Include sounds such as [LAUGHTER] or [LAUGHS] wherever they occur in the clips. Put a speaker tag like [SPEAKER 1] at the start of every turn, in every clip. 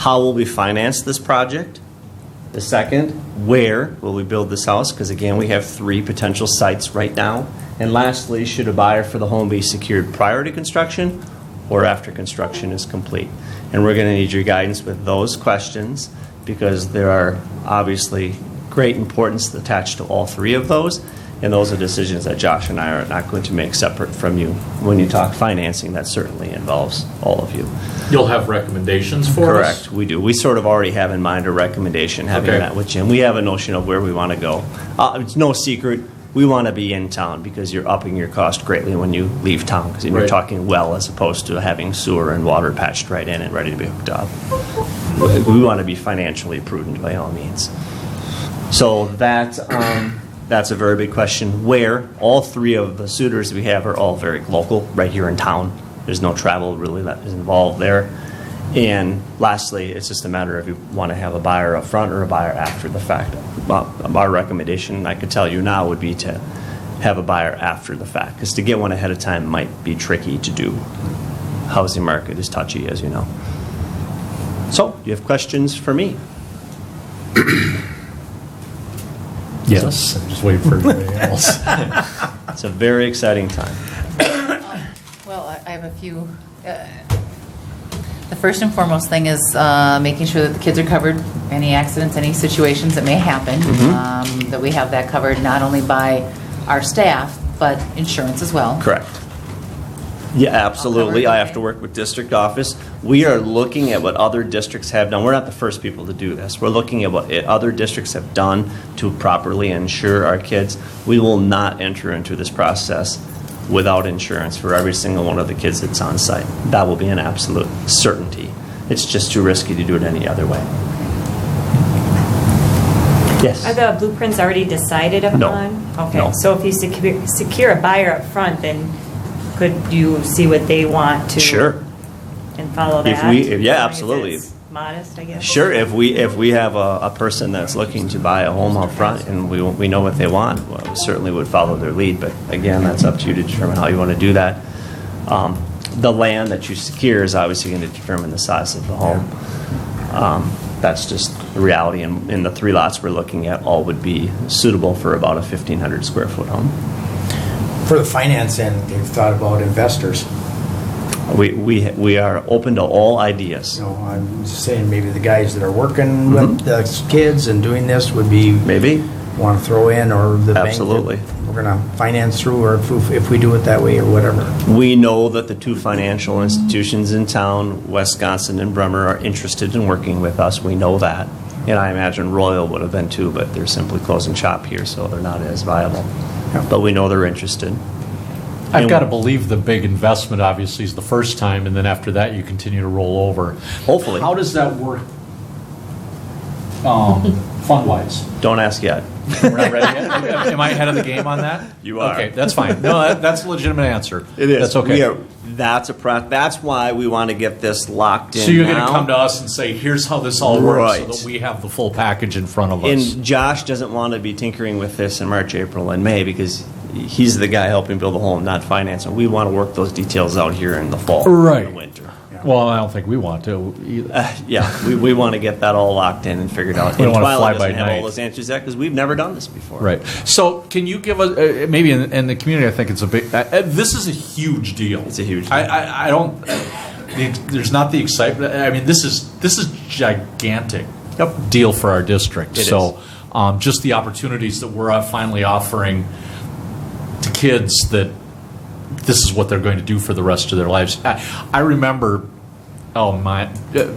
[SPEAKER 1] How will we finance this project? The second, where will we build this house? Because again, we have three potential sites right now. And lastly, should a buyer for the home be secured prior to construction or after construction is complete? And we're going to need your guidance with those questions because there are obviously great importance attached to all three of those. And those are decisions that Josh and I are not going to make separate from you. When you talk financing, that certainly involves all of you.
[SPEAKER 2] You'll have recommendations for us?
[SPEAKER 1] Correct, we do. We sort of already have in mind a recommendation, having
[SPEAKER 2] Okay.
[SPEAKER 1] met with Jim. We have a notion of where we want to go. Uh, It's no secret, we want to be in town because you're upping your cost greatly when you leave town because you're
[SPEAKER 2] Right.
[SPEAKER 1] talking well as opposed to having sewer and water patched right in and ready to be hooked up. We want to be financially prudent by all means. So that, um, that's a very big question. Where, all three of the suitors we have are all very local, right here in town. There's no travel really that is involved there. And lastly, it's just a matter of you want to have a buyer up front or a buyer after the fact. Well, Our recommendation, I could tell you now, would be to have a buyer after the fact, because to get one ahead of time might be tricky to do. Housing market is touchy, as you know. So, do you have questions for me?
[SPEAKER 2] Yes. Just wait for [LAUGHS] everybody else.
[SPEAKER 1] It's a very exciting time.
[SPEAKER 3] Well, I- I have a few. uh, The first and foremost thing is uh, making sure that the kids are covered, any accidents, any situations that may happen, um, that we have that covered not only by our staff, but insurance as well.
[SPEAKER 1] Correct. Yeah, absolutely. I have to
[SPEAKER 3] everything.
[SPEAKER 1] work with district office. We are looking at what other districts have done. We're not the first people to do this. We're looking at what i- other districts have done to properly insure our kids. We will not enter into this process without insurance for every single one of the kids that's on site. That will be an absolute certainty. It's just too risky to do it any other way. Yes.
[SPEAKER 4] Are the blueprints already decided upon?
[SPEAKER 1] No. No.
[SPEAKER 4] Okay, so if you secure, secure a buyer up front, then could you see what they want to?
[SPEAKER 1] Sure.
[SPEAKER 4] And follow
[SPEAKER 1] If
[SPEAKER 4] that?
[SPEAKER 1] we- if- yeah,
[SPEAKER 4] As long as
[SPEAKER 1] absolutely.
[SPEAKER 4] it's Modest, I guess?
[SPEAKER 1] Sure, if we, if we have a, a person that's looking to buy a home up front and we, we know what they want, well, we certainly would follow their lead, but again, that's up to you to determine how you want to do that. Um, The land that you secure is obviously going to determine the size of the home. Um, That's just the reality, and, and the three lots we're looking at all would be suitable for about a 1,500 square foot home.
[SPEAKER 5] For the finance end, they've thought about investors.
[SPEAKER 1] We, we, we are open to all ideas.
[SPEAKER 5] You know, I'm just saying maybe the guys that are working with the kids and doing this would be.
[SPEAKER 1] Maybe?
[SPEAKER 5] Want to throw in or the bank. that
[SPEAKER 1] Absolutely.
[SPEAKER 5] We're going to finance through or if, if we do it that way or whatever.
[SPEAKER 1] We know that the two financial institutions in town, Wisconsin and Bremer, are interested in working with us. We know that. And I imagine Royal would have been too, but they're simply closing shop here, so they're not as viable. But we know they're interested.
[SPEAKER 2] I've got to believe the big investment, obviously, is the first time, and then after that, you continue to roll over.
[SPEAKER 1] Hopefully.
[SPEAKER 2] How does that work um, fund-wise?
[SPEAKER 1] Don't ask yet.
[SPEAKER 2] We're not
[SPEAKER 1] [LAUGHS]
[SPEAKER 2] ready yet? Am I ahead of the game on that?
[SPEAKER 1] You are.
[SPEAKER 2] Okay, that's fine. No, that- that's a legitimate answer. That's
[SPEAKER 1] We
[SPEAKER 2] okay.
[SPEAKER 1] are- That's a, pro- that's why we want to get this locked in
[SPEAKER 2] So you're going to
[SPEAKER 1] now.
[SPEAKER 2] come to us and say, here's how this all works, so
[SPEAKER 1] Right.
[SPEAKER 2] that we have the full package in front of us.
[SPEAKER 1] And Josh doesn't want to be tinkering with this in March, April, and May because he's the guy helping build the home, not finance. And we want to work those details out here in the fall, and the
[SPEAKER 2] Right.
[SPEAKER 1] winter.
[SPEAKER 2] Well, I don't think we want to either.
[SPEAKER 1] Yeah, we, we want to get that all locked in and figured out.
[SPEAKER 2] We don't
[SPEAKER 1] And
[SPEAKER 2] wanna
[SPEAKER 1] Twyla
[SPEAKER 2] fly
[SPEAKER 1] doesn't
[SPEAKER 2] by
[SPEAKER 1] have
[SPEAKER 2] night.
[SPEAKER 1] all those answers yet because we've never done this before.
[SPEAKER 2] Right. So, can you give us uh, maybe in, in the community? I think it's a big. Uh, uh, this is a huge deal.
[SPEAKER 1] It's a huge
[SPEAKER 2] I,
[SPEAKER 1] deal.
[SPEAKER 2] I, I don't. the- There's not the excitement. I mean, this is this is gigantic deal for our district.
[SPEAKER 1] It
[SPEAKER 2] so, Um, just the opportunities that we're uh, finally offering to kids that this is what they're going to do for the rest of their lives. I, I remember, oh my, uh,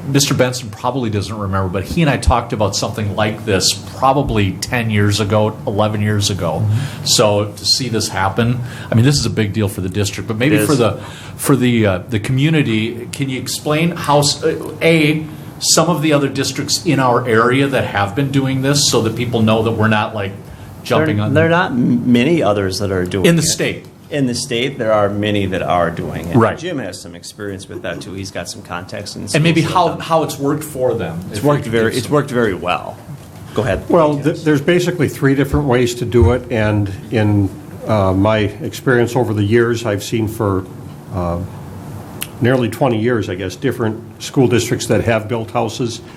[SPEAKER 2] Mr. Benson probably doesn't remember, but he and I talked about something like this probably 10 years ago, 11 years ago.
[SPEAKER 1] Mm-hmm.
[SPEAKER 2] So to see this happen, I mean, this is a big deal for the district, but maybe
[SPEAKER 1] It
[SPEAKER 2] for
[SPEAKER 1] is.
[SPEAKER 2] the for the uh, the community, can you explain how s- uh, a some of the other districts in our area that have been doing this, so that people know that we're not like
[SPEAKER 1] There,
[SPEAKER 2] jumping on
[SPEAKER 1] there are not m- many others that are doing
[SPEAKER 2] in the
[SPEAKER 1] it.
[SPEAKER 2] state.
[SPEAKER 1] In the state, there are many that are doing it.
[SPEAKER 2] Right.
[SPEAKER 1] Jim has some experience with that too. He's got some context and
[SPEAKER 2] and maybe
[SPEAKER 1] skills
[SPEAKER 2] how,
[SPEAKER 1] with them.
[SPEAKER 2] how it's worked for them.
[SPEAKER 1] it's worked very it's worked very well. Go ahead.
[SPEAKER 6] Well, th- there's basically three different ways to do it, and in uh, my experience over the years, I've seen for uh, nearly 20 years, I guess, different school districts that have built houses